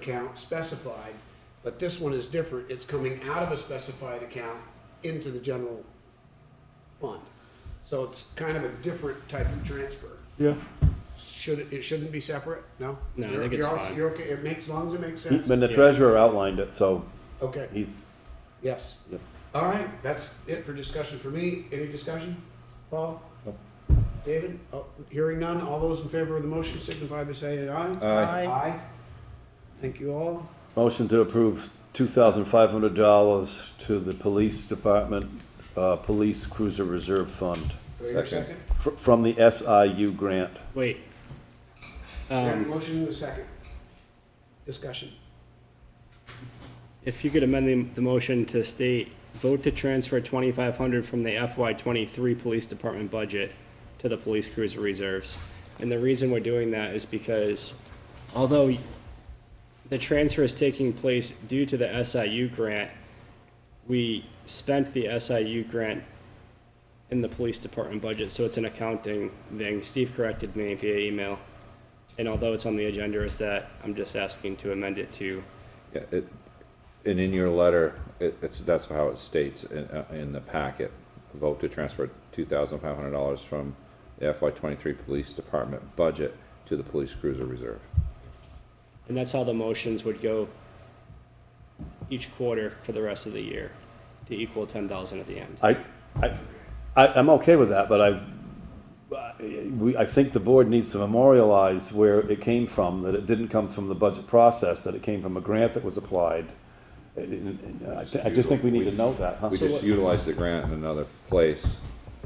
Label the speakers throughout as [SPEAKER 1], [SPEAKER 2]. [SPEAKER 1] account specified, but this one is different. It's coming out of a specified account into the general fund. So it's kind of a different type of transfer.
[SPEAKER 2] Yeah,
[SPEAKER 1] Should, it- it shouldn't be separate? No?
[SPEAKER 3] No, I
[SPEAKER 1] You're-
[SPEAKER 3] think it's
[SPEAKER 1] you're all-
[SPEAKER 3] fine.
[SPEAKER 1] You're okay, it makes, as long as it makes sense?
[SPEAKER 2] and the treasurer outlined it, so
[SPEAKER 1] Okay,
[SPEAKER 2] he's,
[SPEAKER 1] yes.
[SPEAKER 2] Yep.
[SPEAKER 1] All right, that's it for discussion for me. Any discussion? Paul?
[SPEAKER 2] No.
[SPEAKER 1] David? Oh, Hearing none, all those in favor of the motion signify by saying aye.
[SPEAKER 2] Aye.
[SPEAKER 1] Aye. Thank you all.
[SPEAKER 2] motion to approve two thousand five hundred dollars to the police department, uh, police cruiser reserve fund.
[SPEAKER 1] Do I hear a second?
[SPEAKER 2] Fr- From the SIU grant.
[SPEAKER 3] Wait.
[SPEAKER 1] We have a
[SPEAKER 3] Um,
[SPEAKER 1] motion and a second. Discussion.
[SPEAKER 3] if you could amend the, the motion to state, vote to transfer twenty-five hundred from the FY twenty-three police department budget to the police cruiser reserves. And the reason we're doing that is because although the transfer is taking place due to the SIU grant, we spent the SIU grant in the police department budget, so it's an accounting thing. Steve corrected me via email. And although it's on the agenda, is that I'm just asking to amend it to
[SPEAKER 4] Yeah, it, and in your letter, it, it's, that's how it states in, uh, in the packet. Vote to transfer two thousand five hundred dollars from the FY twenty-three Police Department budget to the police cruiser reserve.
[SPEAKER 3] And that's how the motions would go each quarter for the rest of the year to equal ten thousand at the end.
[SPEAKER 2] I, I, I, I'm okay with that, but I, I- we, I think the board needs to memorialize where it came from, that it didn't come from the budget process, that it came from a grant that was applied. And- and- and I, thi- I just think we need to know that, huh?
[SPEAKER 4] We
[SPEAKER 3] what-
[SPEAKER 4] just utilized the grant in another place.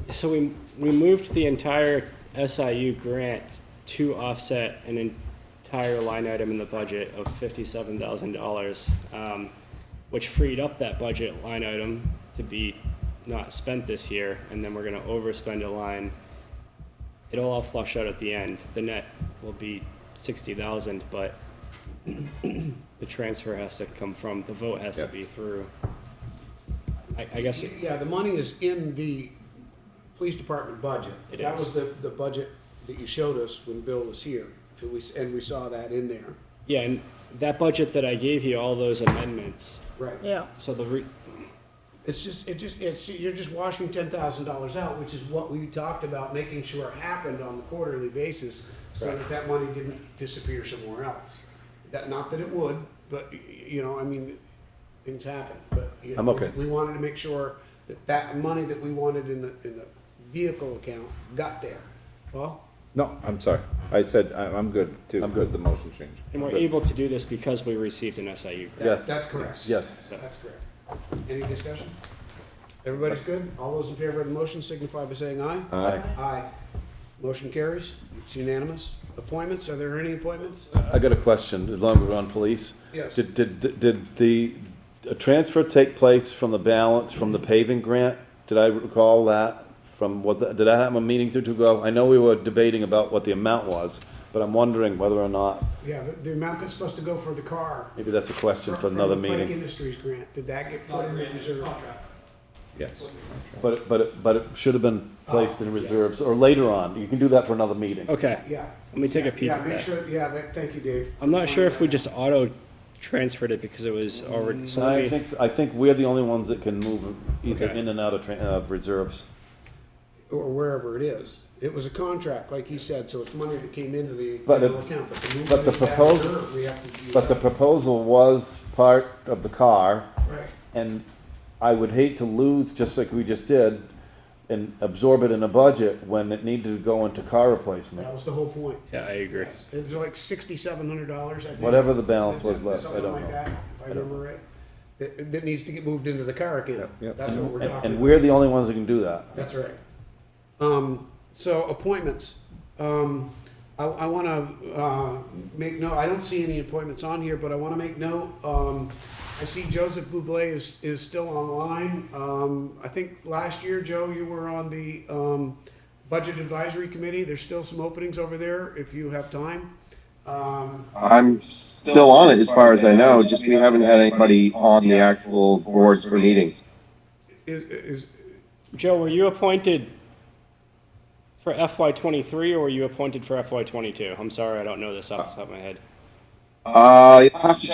[SPEAKER 3] So we, we moved the entire SIU grant to offset an entire line item in the budget of fifty-seven thousand dollars, um, which freed up that budget line item to be not spent this year, and then we're gonna overspend a line. It'll all flush out at the end. The net will be sixty thousand, but the transfer has to come from, the vote has to
[SPEAKER 4] Yeah.
[SPEAKER 3] be through. I, I guess, it-
[SPEAKER 1] Yeah, the money is in the police department budget.
[SPEAKER 3] It
[SPEAKER 1] That
[SPEAKER 3] is.
[SPEAKER 1] was the, the budget that you showed us when Bill was here, so we s- and we saw that in there.
[SPEAKER 3] yeah, and that budget that I gave you, all those amendments,
[SPEAKER 1] Right.
[SPEAKER 5] Yeah,
[SPEAKER 3] So the re-
[SPEAKER 1] It's just, it just, it's, you're just washing ten thousand dollars out, which is what we talked about making sure happened on the quarterly basis, so that that money didn't disappear somewhere else. That, not that it would, but, y- y- you know, I mean, things happen, but. you
[SPEAKER 2] I'm
[SPEAKER 1] know,
[SPEAKER 2] okay.
[SPEAKER 1] We wanted to make sure that that money that we wanted in the, in the vehicle account got there. Well,
[SPEAKER 4] No, I'm sorry. I said, I'm, I'm good to.
[SPEAKER 2] I'm good.
[SPEAKER 4] with The motion change.
[SPEAKER 3] and we're
[SPEAKER 4] Good.
[SPEAKER 3] able to do this because we received an SIU grant.
[SPEAKER 1] that,
[SPEAKER 2] Yes.
[SPEAKER 1] that's correct.
[SPEAKER 2] Yes.
[SPEAKER 1] That's correct. Any discussion? Everybody's good? All those in favor of the motion signify by saying aye.
[SPEAKER 4] Aye.
[SPEAKER 1] Aye. Motion carries. It's unanimous. Appointments, are there any appointments?
[SPEAKER 2] I got a question, as long as we're on police.
[SPEAKER 1] Yes.
[SPEAKER 2] Did, did, did the, a transfer take place from the balance from the paving grant? Did I recall that from, was, that- did I have a meeting two, two ago? I know we were debating about what the amount was, but I'm wondering whether or not,
[SPEAKER 1] Yeah, the, the amount that's supposed to go for the car.
[SPEAKER 2] maybe that's a question for
[SPEAKER 1] from
[SPEAKER 2] another
[SPEAKER 1] the Pike
[SPEAKER 2] meeting.
[SPEAKER 1] Industries grant, did that get put in the reserve?
[SPEAKER 4] Yes.
[SPEAKER 2] But, it- but, it- but it should have been placed in reserves, or later on, you can do that for another meeting.
[SPEAKER 3] Ah, Okay,
[SPEAKER 1] Yeah.
[SPEAKER 3] let me take a peek
[SPEAKER 1] Yeah,
[SPEAKER 3] at
[SPEAKER 1] make
[SPEAKER 3] that.
[SPEAKER 1] sure, yeah, that, thank you, Dave.
[SPEAKER 3] I'm not sure if we just auto transferred it because it was already, so let
[SPEAKER 2] I
[SPEAKER 3] me-
[SPEAKER 2] think, I think we're the only ones that can move either
[SPEAKER 3] Okay.
[SPEAKER 2] in and out of, tran- uh, reserves.
[SPEAKER 1] Or wherever it is. It was a contract, like he said, so it's money that came into the
[SPEAKER 2] But
[SPEAKER 1] general
[SPEAKER 2] it-
[SPEAKER 1] account, but to move
[SPEAKER 2] but the
[SPEAKER 1] it back
[SPEAKER 2] proposal-
[SPEAKER 1] reserve, we have to do
[SPEAKER 2] But the
[SPEAKER 1] that.
[SPEAKER 2] proposal was part of the car.
[SPEAKER 1] Right.
[SPEAKER 2] And I would hate to lose, just like we just did, and absorb it in a budget when it needed to go into car
[SPEAKER 1] That
[SPEAKER 2] replacement,
[SPEAKER 1] was the whole point.
[SPEAKER 3] yeah, I agree.
[SPEAKER 1] Yes. It was like sixty-seven hundred dollars, I think.
[SPEAKER 2] whatever the balance was
[SPEAKER 1] That's it,
[SPEAKER 2] left, I
[SPEAKER 1] something
[SPEAKER 2] don't
[SPEAKER 1] like that,
[SPEAKER 2] know.
[SPEAKER 1] If I remember right, that, that needs to get moved into the car account.
[SPEAKER 4] yep.
[SPEAKER 1] That's what we're
[SPEAKER 2] And,
[SPEAKER 1] talking about.
[SPEAKER 2] and we're the only ones that can do that.
[SPEAKER 1] That's right. Um, so appointments. Um, I, I want to uh, make note. I don't see any appointments on here, but I want to make note. Um, I see Joseph Buble is is still online. Um, I think last year, Joe, you were on the um, budget advisory committee. There's still some openings over there if you have time. Um,
[SPEAKER 6] I'm still on it as far as I know, just we haven't had anybody on the actual boards for meetings.
[SPEAKER 1] is is
[SPEAKER 3] Joe, were you appointed for FY twenty-three or were you appointed for FY twenty-two? I'm sorry, I don't know this off the top of my head.
[SPEAKER 6] Uh, you'll have to